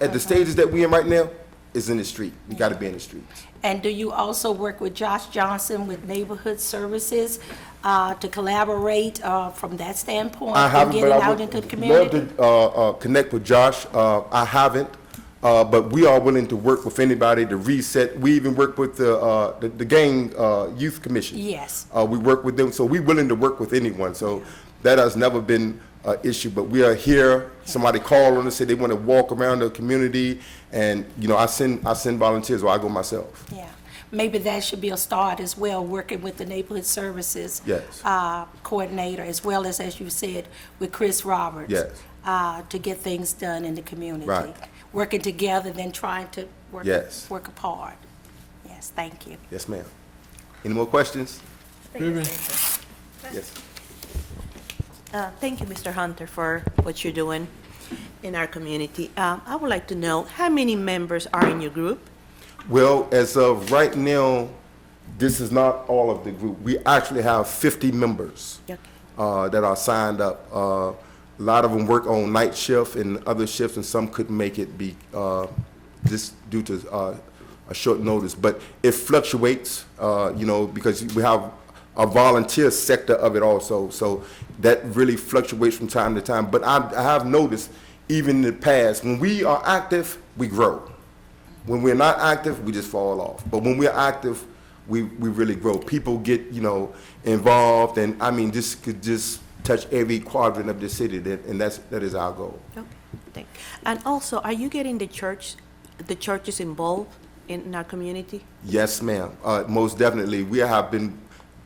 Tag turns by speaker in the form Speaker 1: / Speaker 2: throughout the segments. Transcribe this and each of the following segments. Speaker 1: at the stages that we in right now, is in the street. We gotta be in the street.
Speaker 2: And do you also work with Josh Johnson with Neighborhood Services uh, to collaborate uh, from that standpoint?
Speaker 1: I haven't,
Speaker 2: In
Speaker 1: but
Speaker 2: getting
Speaker 1: I
Speaker 2: out
Speaker 1: would
Speaker 2: into the
Speaker 1: love
Speaker 2: community?
Speaker 1: to uh, uh, connect with Josh. Uh, I haven't, uh, but we are willing to work with anybody to reset. We even work with the uh, the, the gang uh, youth commission.
Speaker 2: Yes.
Speaker 1: uh, we work with them, so we're willing to work with anyone. So that has never been an issue. But we are here. Somebody call on us say they want to walk around the community, and you know I send I send volunteers or I go myself.
Speaker 2: Yeah. Maybe that should be a start as well, working with the Neighborhood Services.
Speaker 1: Yes.
Speaker 2: uh, Coordinator, as well as, as you said, with Chris Roberts.
Speaker 1: Yes.
Speaker 2: uh, To get things done in the community.
Speaker 1: Right.
Speaker 2: Working together than trying to work.
Speaker 1: Yes.
Speaker 2: Work apart. Yes, thank you.
Speaker 1: Yes, ma'am. Any more questions?
Speaker 3: Ruben.
Speaker 1: Yes.
Speaker 4: Uh, Thank you, Mr. Hunter, for what you're doing in our community. Um, I would like to know, how many members are in your group?
Speaker 1: Well, as of right now, this is not all of the group. We actually have 50 members
Speaker 4: Okay.
Speaker 1: uh, that are signed up. Uh, A lot of them work on night shift and other shifts, and some couldn't make it be, uh, just due to uh, a short notice. But it fluctuates, uh, you know, because we have a volunteer sector of it also. So that really fluctuates from time to time. But I I have noticed, even in the past, when we are active, we grow. When we're not active, we just fall off. But when we're active, we, we really grow. People get, you know, involved and, I mean, this could just touch every quadrant of the city that, and that's, that is our goal.
Speaker 4: Okay, thank. And also, are you getting the church, the churches involved in our community?
Speaker 1: Yes, ma'am. Uh, most definitely. We have been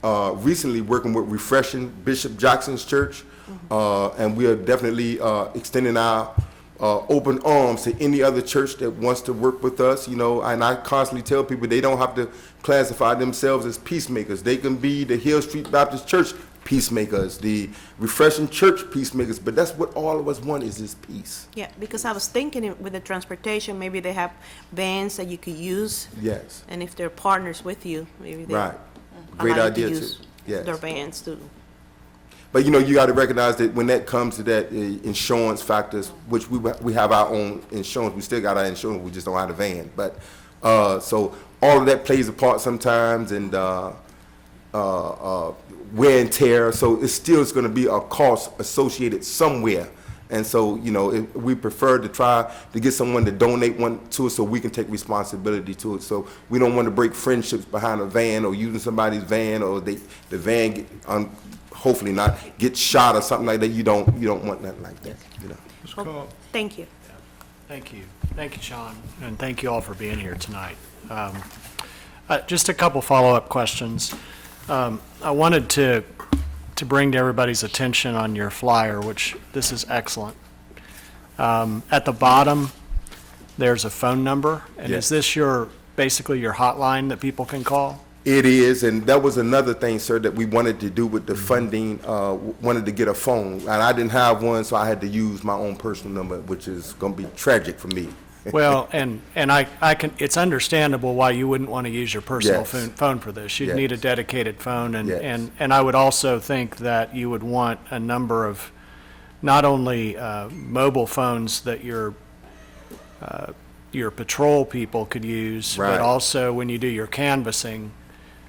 Speaker 1: uh, recently working with Refreshing Bishop Jackson's Church, uh, and we are definitely uh, extending our uh, open arms to any other church that wants to work with us. You know, and I constantly tell people they don't have to classify themselves as peacemakers. They can be the Hill Street Baptist Church peacemakers, the Refreshing Church peacemakers. But that's what all of us want is this peace.
Speaker 4: Yeah, because I was thinking it- with the transportation, maybe they have vans that you could use.
Speaker 1: Yes.
Speaker 4: And if they're partners with you, maybe they.
Speaker 1: Right.
Speaker 4: allow
Speaker 1: Great
Speaker 4: you to
Speaker 1: idea too.
Speaker 4: use
Speaker 1: Yes.
Speaker 4: Their vans too.
Speaker 1: But you know, you got to recognize that when that comes to that uh, insurance factors, which we we have our own insurance, we still got our insurance, we just don't have a van. But uh, so all of that plays a part sometimes, and uh, uh, uh, wear and tear. So it still is going to be a cost associated somewhere. And so you know, it, we prefer to try to get someone to donate one to us, so we can take responsibility to it. So we don't want to break friendships behind a van or using somebody's van or they the van get un, hopefully not get shot or something like that. You don't you don't want nothing like that. You know.
Speaker 3: Ms.
Speaker 4: Well,
Speaker 3: Cobb.
Speaker 4: Thank you.
Speaker 5: Thank you. Thank you, Sean, and thank you all for being here tonight. Um, uh, Just a couple follow-up questions. Um, I wanted to, to bring to everybody's attention on your flyer, which this is excellent. Um, At the bottom, there's a phone number, and
Speaker 1: Yes.
Speaker 5: is this your, basically your hotline that people can call?
Speaker 1: It is, and that was another thing, sir, that we wanted to do with
Speaker 5: Mm-hmm.
Speaker 1: the funding, uh, w- wanted to get a phone. And I didn't have one, so I had to use my own personal number, which is gonna be tragic for me.
Speaker 5: Well, and, and I, I can, it's understandable why you wouldn't want to use your personal
Speaker 1: Yes.
Speaker 5: phone, phone for this. You'd need a
Speaker 1: Yes.
Speaker 5: dedicated phone, and,
Speaker 1: Yes.
Speaker 5: and, and I would also think that you would want a number of, not only, uh, mobile phones that your, uh, your patrol people could use,
Speaker 1: Right.
Speaker 5: but also when you do your canvassing,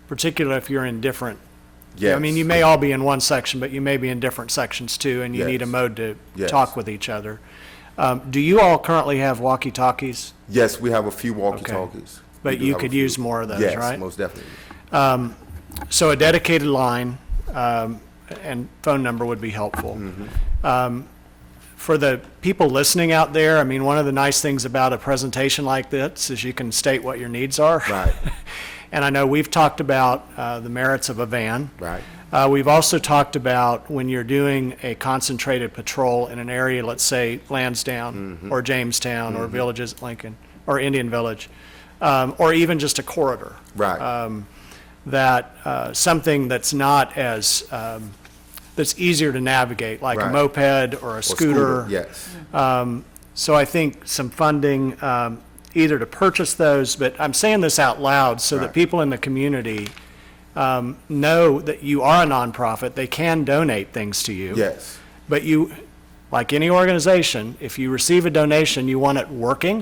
Speaker 5: particularly if you're in different,
Speaker 1: Yes.
Speaker 5: I mean, you may all be in one section, but you may be in different sections too, and you need a
Speaker 1: Yes.
Speaker 5: mode to
Speaker 1: Yes.
Speaker 5: talk with each other. Um, do you all currently have walkie-talkies?
Speaker 1: Yes, we have a few walkie-talkies. We
Speaker 5: But
Speaker 1: do
Speaker 5: you
Speaker 1: have a
Speaker 5: could
Speaker 1: few.
Speaker 5: use more of those,
Speaker 1: Yes,
Speaker 5: right?
Speaker 1: most definitely.
Speaker 5: So a dedicated line um, and phone number would be helpful.
Speaker 1: Mm-hmm.
Speaker 5: Um, For the people listening out there, I mean, one of the nice things about a presentation like this is you can state what your needs are.
Speaker 1: Right.
Speaker 5: And I know we've talked about uh, the merits of a van.
Speaker 1: Right.
Speaker 5: Uh, We've also talked about when you're doing a concentrated patrol in an area, let's say Lansdowne
Speaker 1: Mm-hmm.
Speaker 5: or Jamestown or Villages at Lincoln or Indian Village, um, or even just a corridor
Speaker 1: Right.
Speaker 5: Um, that uh, something that's not as, um, that's easier to navigate, like a
Speaker 1: Right.
Speaker 5: moped or a
Speaker 1: Or
Speaker 5: scooter.
Speaker 1: Yes,
Speaker 5: So I think some funding, um, either to purchase those, but I'm saying this out loud so
Speaker 1: Right.
Speaker 5: that people in the community um, know that you are a nonprofit, they can donate things to you.
Speaker 1: yes,
Speaker 5: But you, like any organization, if you receive a donation, you want it working